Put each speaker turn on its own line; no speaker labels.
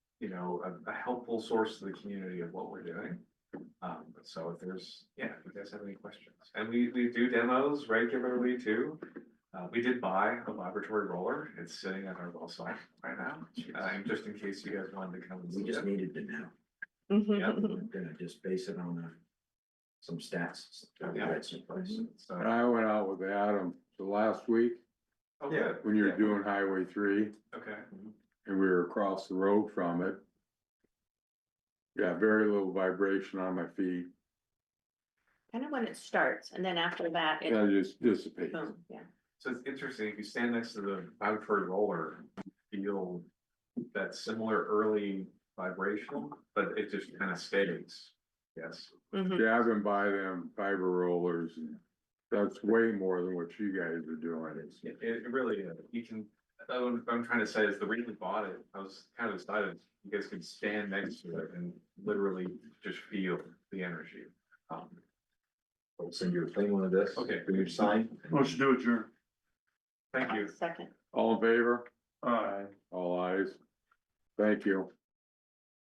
you know, a, a helpful source to the community of what we're doing. Um, so if there's, yeah, if you guys have any questions, and we, we do demos regularly too. Uh, we did buy a laboratory roller, it's sitting at our well site right now, uh, and just in case you guys wanted to come and
We
see
just
it.
needed to know.
Yeah.
We're gonna just base it on uh, some stats. that we read someplace.
Mm-hmm.
When
So,
I went out with Adam the last week,
oh,
Yeah.
good.
when you were
Yeah.
doing Highway three,
Okay,
and we were across the road from it. Yeah, very little vibration on my feet,
Kind of when it starts and then after that, it,
and it just dissipates.
boom, yeah.
so it's interesting, if you stand next to the laboratory roller, you'll, that similar early vibration, but it just kind of stays. Yes,
Mhm.
Yeah, I've been by them fiber rollers, and that's way more than what you guys are doing. It's
it, it really, is. you can, uh, what I'm trying to say is the reason we bought it, I was kind of excited. You guys can stand next to it and literally just feel the energy. Um,
We'll send you a thing one of this.
Okay.
For your sign.
Let's do it, Jer.
Thank you.
Second.
all in favor,
All right.
all eyes. Thank you.